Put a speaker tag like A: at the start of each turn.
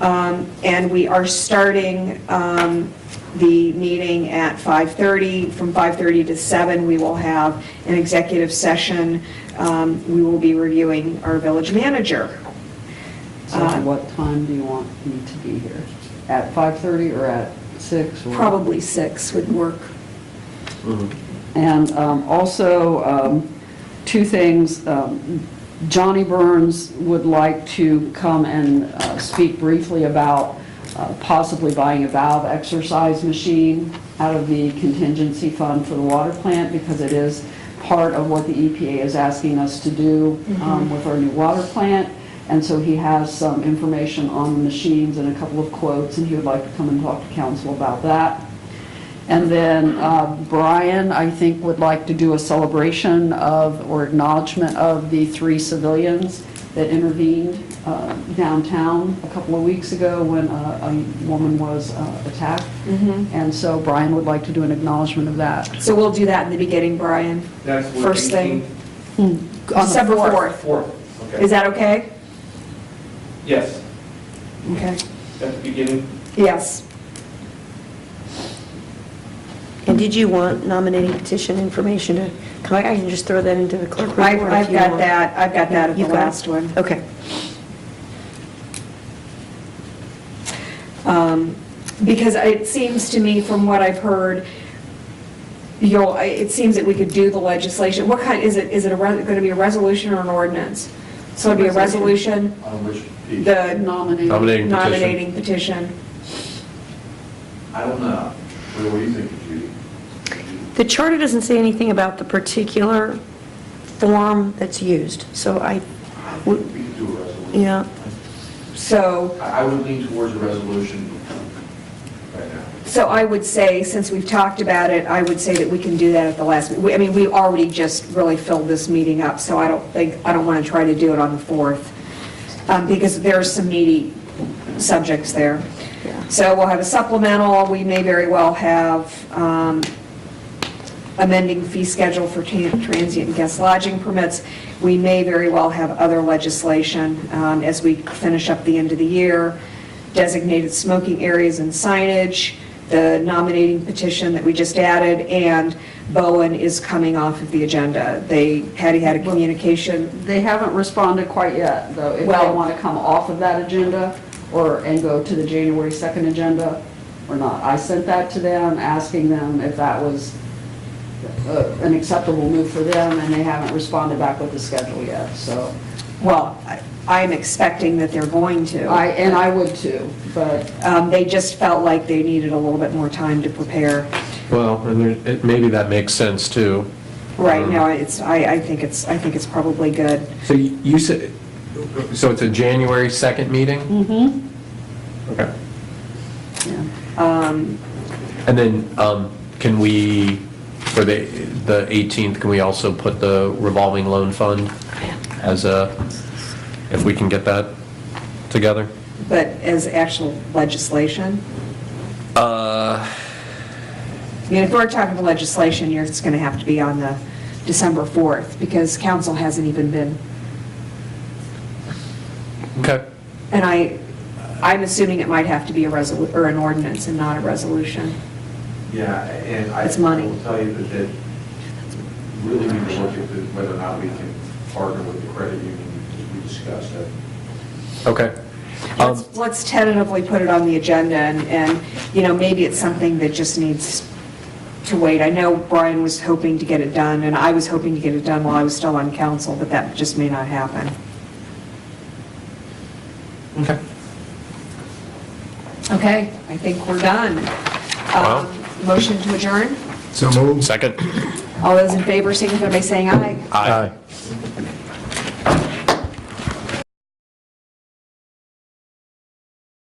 A: Um, And we are starting um, the meeting at 5:30. From 5:30 to 7, we will have an executive session. Um, We will be reviewing our village manager.
B: So what time do you want me to be here? At 5:30 or at 6? or-
A: Probably 6 would work.
B: And um, also, um, two things, um, Johnny Burns would like to come and uh, speak briefly about uh, possibly buying a valve exercise machine out of the contingency fund for the water plant, because it is part of what the EPA is asking us to do um, with our new water plant. And so he has some information on the machines and a couple of quotes, and he would like to come and talk to council about that. And then uh, Brian, I think, would like to do a celebration of, or acknowledgement of the three civilians that intervened uh, downtown a couple of weeks ago when uh, a woman was uh, attacked.
A: Mm-hmm.
B: And so Brian would like to do an acknowledgement of that.
A: So we'll do that in the beginning, Brian.
C: That's what,
A: First thing.
C: 18th?
B: On the
A: December 4th.
C: Fourth,
A: Is
C: okay.
A: that okay?
C: Yes,
A: Okay.
C: at the beginning.
A: Yes.
D: And did you want nominating petition information to, come? I can just throw that into the clerk report
A: I-
D: if you
A: I've got
D: want.
A: that, I've got that at the
D: You've got it?
A: last one.
D: Okay.
A: Um, Because it seems to me, from what I've heard, you'll, I- it seems that we could do the legislation. What kind, is it, is it going to be a resolution or an ordinance? So it'd be a resolution,
E: On which piece?
A: the
B: Nominate.
F: Nominating petition.
A: nominating petition.
E: I don't know. What what do you think, Judy?
D: The charter doesn't say anything about the particular form that's used, so I,
E: I think We could do a resolution.
D: Yeah.
A: So,
E: I I would lean towards a resolution right now.
A: so I would say, since we've talked about it, I would say that we can do that at the last, we- I mean, we already just really filled this meeting up, so I don't think, I don't want to try to do it on the 4th, um, because there are some meaty subjects there.
D: yeah.
A: So we'll have a supplemental, we may very well have um, amending fee schedule for tran- transient guest lodging permits. We may very well have other legislation um, as we finish up the end of the year, designated smoking areas and signage, the nominating petition that we just added, and Bowen is coming off of the agenda. They, Patty had a communication
B: They haven't responded quite yet, though, if they
A: Well-
B: want to come off of that agenda or, and go to the January 2nd agenda or not. I sent that to them, asking them if that was uh, an acceptable move for them, and they haven't responded back with the schedule yet, so.
A: well, I- I'm expecting that they're going to.
B: I, and I would too, but
A: Um, They just felt like they needed a little bit more time to prepare.
F: Well, and there- it- maybe that makes sense, too.
A: Right now, it's, I, I think it's, I think it's probably good.
F: So you you said, so it's a January 2nd meeting? Mm-hmm. Okay. And then, um, can we, for the the 18th, can we also put the revolving loan fund as a, if we can get that together?
A: But as actual legislation? I mean, if we're talking to legislation, you're, it's going to have to be on the December 4th, because council hasn't even been,
F: Okay.
A: and I, I'm assuming it might have to be a resolu, or an ordinance and not a resolution.
E: Yeah, and I
A: It's money.
E: I will tell you that, that really need to look at the- whether or not we can partner with the credit union, as we discussed. that.
F: Okay. Um,
A: Let's let's tentatively put it on the agenda, and, and, you know, maybe it's something that just needs to wait. I know Brian was hoping to get it done, and I was hoping to get it done while I was still on council, but that just may not happen.
F: Um, Okay.
A: Okay, I think we're done.
F: Wow.
A: Um, Motion to adjourn?
F: Second?
A: All those in favor signify by saying aye.
F: Aye.